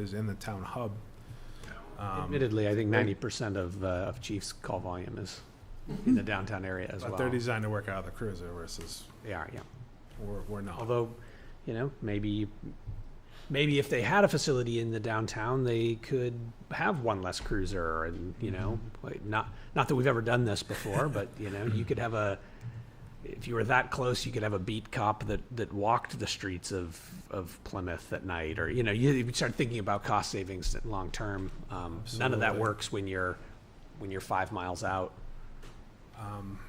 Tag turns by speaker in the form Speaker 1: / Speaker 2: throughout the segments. Speaker 1: is in the town hub. Um,
Speaker 2: Admittedly, I think ninety percent of, uh, of Chiefs call volume is in the downtown area as well.
Speaker 1: But they're designed to work out of the cruiser versus
Speaker 2: They are, yeah.
Speaker 1: we're, we're not.
Speaker 2: Although, you know, maybe, maybe if they had a facility in the downtown, they could have one less cruiser and, you know, like, not, not that we've ever done this before, but, you know, you could have a, if you were that close, you could have a beat cop that, that walked the streets of, of Plymouth at night, or, you know, you, you start thinking about cost savings long-term. Um, none of that
Speaker 1: Absolutely.
Speaker 2: works when you're, when you're five miles out.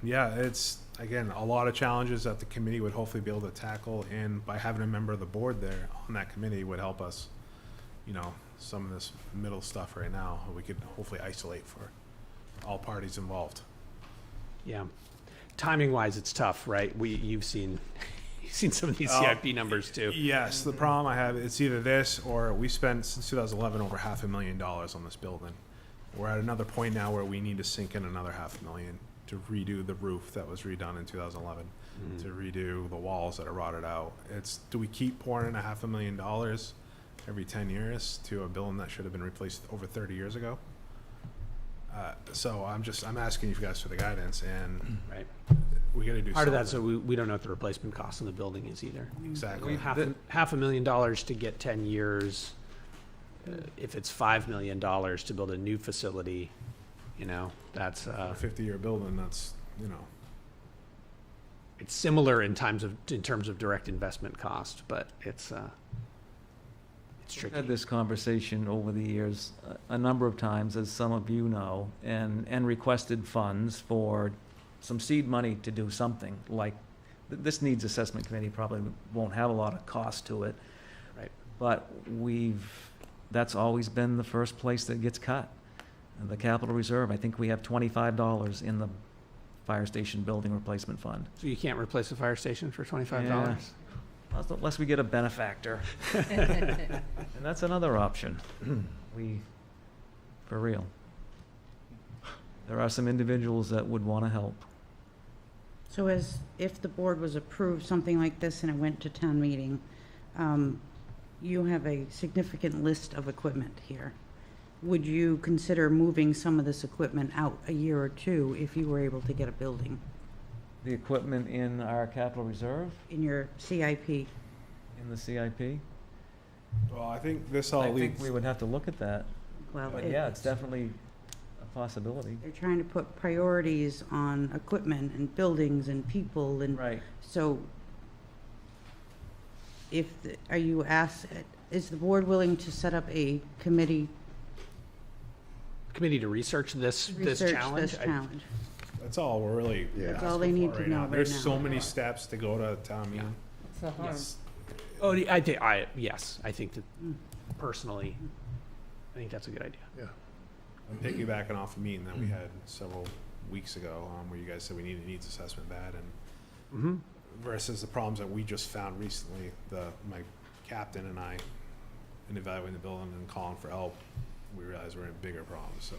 Speaker 1: Yeah, it's, again, a lot of challenges that the committee would hopefully be able to tackle, and by having a member of the board there on that committee would help us, you know, some of this middle stuff right now, we could hopefully isolate for all parties involved.
Speaker 2: Yeah. Timing wise, it's tough, right? We, you've seen, you've seen some of these
Speaker 1: Oh,
Speaker 2: CIP numbers too.
Speaker 1: Yes, the problem I have, it's either this or we spent since 2011 over half a million dollars on this building. We're at another point now where we need to sink in another half a million to redo the roof that was redone in 2011, to redo the walls that are rotted out. It's, do we keep pouring in a half a million dollars every 10 years to a building that should have been replaced over 30 years ago? Uh, So I'm just, I'm asking you guys for the guidance and
Speaker 2: Right.
Speaker 1: we gotta do something.
Speaker 2: Part of that, so we, we don't know what the replacement cost in the building is either.
Speaker 1: Exactly.
Speaker 2: Half, a- half a million dollars to get ten years. uh, If it's five million dollars to build a new facility, you know, that's,
Speaker 1: A
Speaker 2: uh,
Speaker 1: 50-year building, that's, you know.
Speaker 2: it's similar in times of, in terms of direct investment cost, but it's, uh, it's
Speaker 3: We've Had
Speaker 2: tricky.
Speaker 3: this conversation over the years a, a number of times, as some of you know, and, and requested funds for some seed money to do something like, th- this needs assessment committee probably won't have a lot of cost to it.
Speaker 2: Right.
Speaker 3: But we've, that's always been the first place that gets cut. And The capital reserve, I think we have twenty-five dollars in the fire station building replacement fund.
Speaker 2: So you can't replace a fire station for twenty-five dollars?
Speaker 3: Unless we get a benefactor. And that's another option. We, for real. There are some individuals that would want to help.
Speaker 4: So as, if the board was approved something like this and it went to town meeting, um, you have a significant list of equipment here. Would you consider moving some of this equipment out a year or two if you were able to get a building
Speaker 3: The equipment in our capital reserve,
Speaker 4: in your CIP?
Speaker 3: in the CIP?
Speaker 1: Well, I think this all
Speaker 3: I think
Speaker 1: leads.
Speaker 3: we would have to look at that,
Speaker 4: Well,
Speaker 3: but
Speaker 4: it-
Speaker 3: yeah, it's definitely a possibility.
Speaker 4: They're trying to put priorities on equipment and buildings and people and
Speaker 3: Right.
Speaker 4: So if, the- are you asked, is the board willing to set up a committee
Speaker 2: Committee to research this,
Speaker 4: to
Speaker 2: this
Speaker 4: research
Speaker 2: challenge?
Speaker 4: this
Speaker 2: I-
Speaker 4: challenge?
Speaker 1: That's all we're really.
Speaker 4: That's all they need to know right
Speaker 1: There's so
Speaker 4: now.
Speaker 1: many steps to go to town meeting. Yes.
Speaker 2: Oh, I think I yes, I think that personally, I think that's a good idea.
Speaker 1: I'm piggybacking off a meeting that we had several weeks ago, um, where you guys said we need a needs assessment bad and
Speaker 2: Mm-hmm.
Speaker 1: versus the problems that we just found recently, the, my captain and I, in evaluating the building and calling for help, we realized we're in bigger problems, so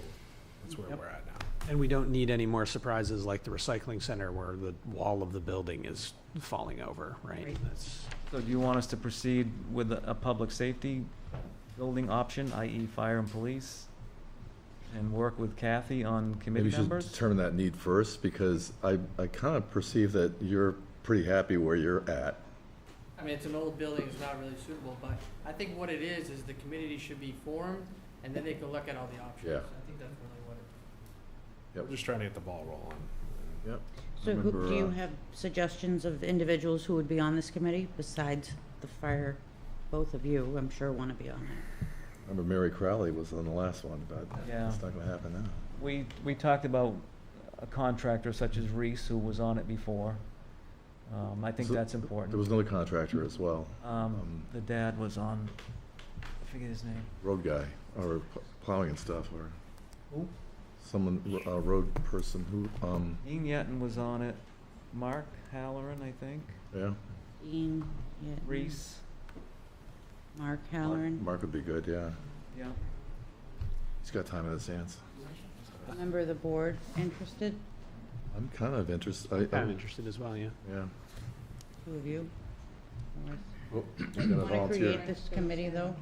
Speaker 1: that's where
Speaker 2: Yep.
Speaker 1: we're at now.
Speaker 2: And we don't need any more surprises like the recycling center where the wall of the building is falling over, right?
Speaker 4: Right.
Speaker 2: That's,
Speaker 3: So do you want us to proceed with a, a public safety building option, i.e. fire and police? And work with Kathy on
Speaker 5: Maybe
Speaker 3: committee
Speaker 5: you should
Speaker 3: members?
Speaker 5: determine that need first, because I, I kind of perceive that you're pretty happy where you're at.
Speaker 6: I mean, it's an old building, it's not really suitable, but I think what it is, is the community should be formed, and then they can look at all the options.
Speaker 5: Yeah.
Speaker 6: I think that's really what it
Speaker 1: We're just trying to get the ball rolling.
Speaker 5: Yep.
Speaker 4: So who, do
Speaker 5: Remember,
Speaker 4: you
Speaker 5: uh,
Speaker 4: have suggestions of individuals who would be on this committee besides the fire? Both of you, I'm sure, want to be on it.
Speaker 5: Remember Mary Crowley was on the last one, but
Speaker 3: Yeah.
Speaker 5: it's not gonna happen now.
Speaker 3: We, we talked about a contractor such as Reese, who was on it before. Um, I think
Speaker 5: So,
Speaker 3: that's
Speaker 5: There
Speaker 3: important.
Speaker 5: was another contractor as well,
Speaker 3: Um,
Speaker 5: um,
Speaker 3: the dad was on, I forget his name.
Speaker 5: road guy, or p- plowing and stuff, or
Speaker 3: Who?
Speaker 5: someone, a road person who, um,
Speaker 3: Dean Yetton was on it. Mark Halloran, I think.
Speaker 5: yeah,
Speaker 4: Dean, yeah,
Speaker 3: Reese,
Speaker 4: Mark Halloran,
Speaker 5: Mark would be good, yeah.
Speaker 3: yeah.
Speaker 5: He's got time in his hands.
Speaker 4: a member of the board interested,
Speaker 5: I'm kind of interested, I,
Speaker 2: I'm
Speaker 5: I,
Speaker 2: interested as well, yeah.
Speaker 5: yeah.
Speaker 4: two of you?
Speaker 5: Oh, I'm
Speaker 4: Want
Speaker 5: gonna
Speaker 4: to
Speaker 5: volunteer.
Speaker 4: create this committee, though?